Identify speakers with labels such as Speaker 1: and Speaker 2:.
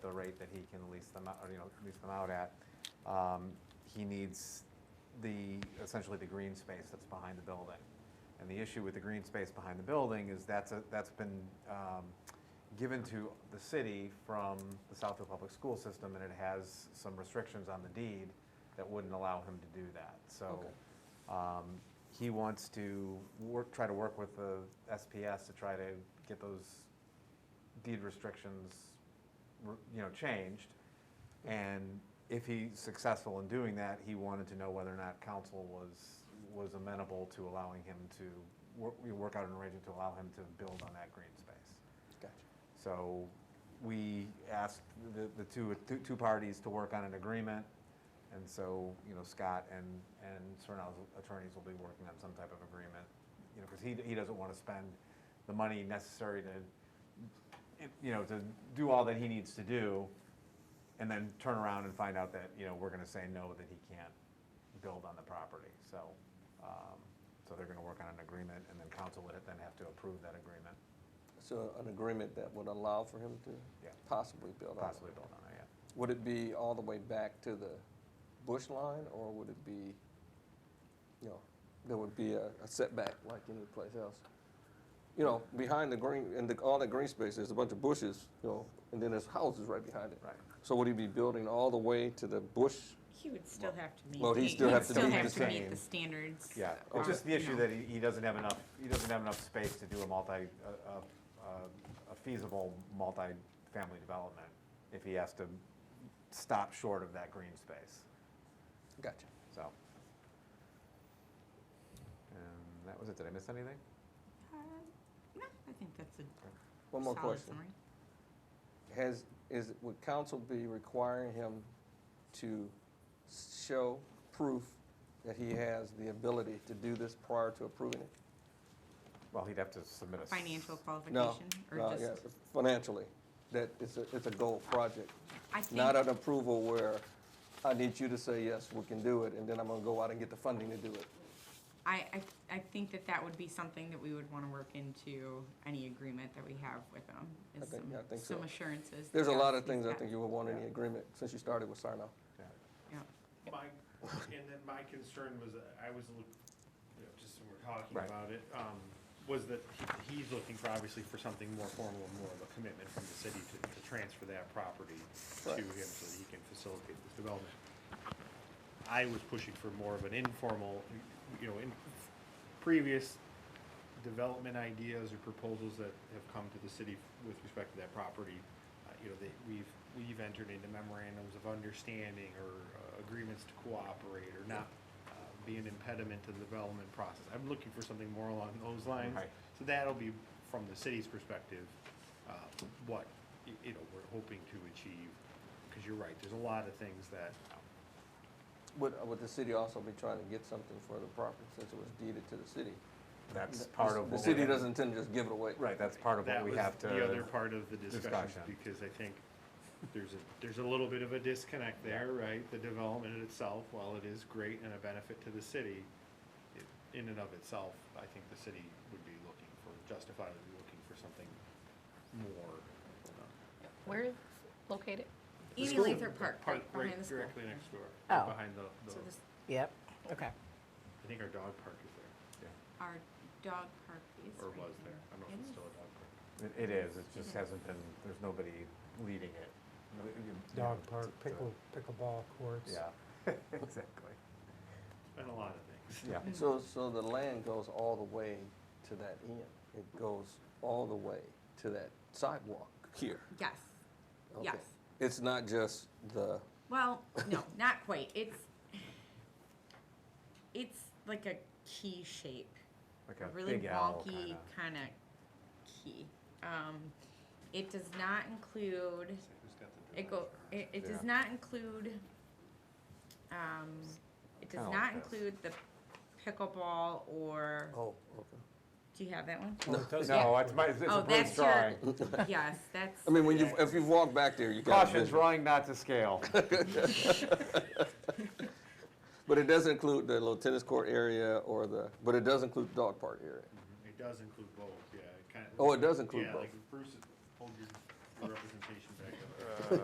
Speaker 1: the rate that he can lease them out, or, you know, lease them out at, um, he needs the, essentially the green space that's behind the building. And the issue with the green space behind the building is that's, a- that's been um, given to the city from the Southfield Public School System, and it has some restrictions on the deed that wouldn't allow him to do that. So um, he wants to work, try to work with the SPS to try to get those deed restrictions, re- you know, changed. And if he's successful in doing that, he wanted to know whether or not council was, was amenable to allowing him to, wor- we work out an arrangement to allow him to build on that green space.
Speaker 2: Gotcha.
Speaker 1: So we asked the, the two, two- two parties to work on an agreement. And so, you know, Scott and, and Sernow's attorneys will be working on some type of agreement. You know, because he, he doesn't want to spend the money necessary to, you know, to do all that he needs to do. And then turn around and find out that, you know, we're going to say no, that he can't build on the property. So, um, so they're going to work on an agreement and then council would then have to approve that agreement,
Speaker 2: So an agreement that would allow for him to
Speaker 1: Yeah.
Speaker 2: possibly build on it?
Speaker 1: possibly build on it, yeah.
Speaker 2: Would it be all the way back to the bush line, or would it be, you know, there would be a a setback like any place else? You know, behind the green, and the, all that green space, there's a bunch of bushes, you know, and then there's houses right behind it.
Speaker 1: Right.
Speaker 2: So would he be building all the way to the bush?
Speaker 3: He would still have to meet.
Speaker 2: Well, he'd
Speaker 3: the-
Speaker 2: still have to meet
Speaker 3: have
Speaker 2: the
Speaker 3: to meet
Speaker 1: same-
Speaker 3: the standards. Uh,
Speaker 1: Yeah,
Speaker 3: or,
Speaker 1: it's just the
Speaker 3: you
Speaker 1: issue
Speaker 3: know.
Speaker 1: that he, he doesn't have enough, he doesn't have enough space to do a multi, a, a- a feasible multi-family development if he has to stop short of that green space,
Speaker 2: Gotcha.
Speaker 1: so. Um, And that was it, did I miss anything?
Speaker 3: Uh, No, I think that's a
Speaker 2: One more
Speaker 3: solid
Speaker 2: question.
Speaker 3: summary.
Speaker 2: Has, is, would council be requiring him to show proof that he has the ability to do this prior to approving it?
Speaker 1: Well, he'd have to submit a. s-
Speaker 3: Financial
Speaker 2: No,
Speaker 3: qualification
Speaker 2: no,
Speaker 3: or
Speaker 2: Uh, yeah,
Speaker 3: just,
Speaker 2: financially, that it's a, it's a goal project,
Speaker 3: I think.
Speaker 2: not an approval where I need you to say, yes, we can do it, and then I'm gonna go out and get the funding to do it.
Speaker 3: I, I, I think that that would be something that we would want to work into any agreement that we have with them.
Speaker 2: I
Speaker 3: is
Speaker 2: think-
Speaker 3: some-
Speaker 2: I think so.
Speaker 3: Some assurances. that
Speaker 2: There's a
Speaker 3: that
Speaker 2: lot of
Speaker 3: is
Speaker 2: things I
Speaker 3: that-
Speaker 2: think you would want in the agreement, since you started with Sarno.
Speaker 1: yeah.
Speaker 3: yeah.
Speaker 4: My, and then my concern was, that I was, look- you know, just when we're talking
Speaker 1: Right.
Speaker 4: about it, um, was that he- he's looking for, obviously, for something more formal, and more of a commitment from the city to, to transfer that property to
Speaker 2: Right.
Speaker 4: him so that he can facilitate this development. I was pushing for more of an informal, you know, in previous development ideas or proposals that have come to the city with respect to that property, uh, you know, that we've, we've entered into memorandums of understanding or uh, agreements to cooperate or not uh, be an impediment to the development process. I'm looking for something more along those lines.
Speaker 1: Right.
Speaker 4: So that'll be from the city's perspective, uh, what, y- you know, we're hoping to achieve. Because you're right, there's a lot of things that,
Speaker 2: Would, would the city also be trying to get something for the property, since it was deeded to the city?
Speaker 1: That's part of.
Speaker 2: The
Speaker 1: what we
Speaker 2: city
Speaker 1: have-
Speaker 2: doesn't intend to just give it away.
Speaker 1: Right, that's part of what
Speaker 4: that
Speaker 1: we
Speaker 4: was
Speaker 1: have to.
Speaker 4: the other part of the
Speaker 1: discussion.
Speaker 4: discussion, because I think there's a, there's a little bit of a disconnect there, right? The development itself, while it is great and a benefit to the city, it- in and of itself, I think the city would be looking for, justifiably looking for something more.
Speaker 5: Where is located?
Speaker 3: Ely Lathrop Park,
Speaker 4: Park,
Speaker 3: right behind the
Speaker 4: right,
Speaker 3: school.
Speaker 4: directly next door,
Speaker 5: Oh.
Speaker 4: right behind the, the,
Speaker 3: So this,
Speaker 5: Yep, okay.
Speaker 4: I think our dog park is there,
Speaker 1: Yeah.
Speaker 3: our dog park is.
Speaker 4: or
Speaker 3: right
Speaker 4: was there, I don't know if
Speaker 3: It is.
Speaker 4: it's still a dog park.
Speaker 1: It- It is, it just hasn't been, there's nobody leading it.
Speaker 6: Dog park, pickle, pickleball courts.
Speaker 1: Yeah, exactly,
Speaker 4: It's been a lot of things.
Speaker 1: yeah.
Speaker 2: So, so the land goes all the way to that end, it goes all the way to that sidewalk here?
Speaker 3: Yes,
Speaker 2: Okay.
Speaker 3: yes.
Speaker 2: It's not just the,
Speaker 3: Well, no, not quite. It's, it's like a key shape.
Speaker 1: Like
Speaker 3: a
Speaker 1: a
Speaker 3: really
Speaker 1: big L
Speaker 3: wonky
Speaker 1: kinda.
Speaker 3: kind of key. Um, it does not include,
Speaker 4: Who's got the
Speaker 3: it go,
Speaker 4: dog park?
Speaker 3: it, it does
Speaker 1: Yeah.
Speaker 3: not include, um, it does
Speaker 1: Kinda
Speaker 3: not
Speaker 1: like this.
Speaker 3: include the pickleball or,
Speaker 2: oh, okay.
Speaker 3: do you have that one?
Speaker 6: Well, it does
Speaker 1: No,
Speaker 6: have-
Speaker 1: it's my, it's
Speaker 3: Oh,
Speaker 1: a
Speaker 3: that's
Speaker 1: Bruce drawing.
Speaker 3: your, yes, that's.
Speaker 2: I mean, when you, if you've walked back there, you got
Speaker 1: Caution, drawing not to scale.
Speaker 2: But it does include the little tennis court area or the, but it does include the dog park area.
Speaker 4: It does include both, yeah, it kind of.
Speaker 2: Oh, it does include
Speaker 4: Yeah,
Speaker 2: both.
Speaker 4: like Bruce, hold your your representation back up.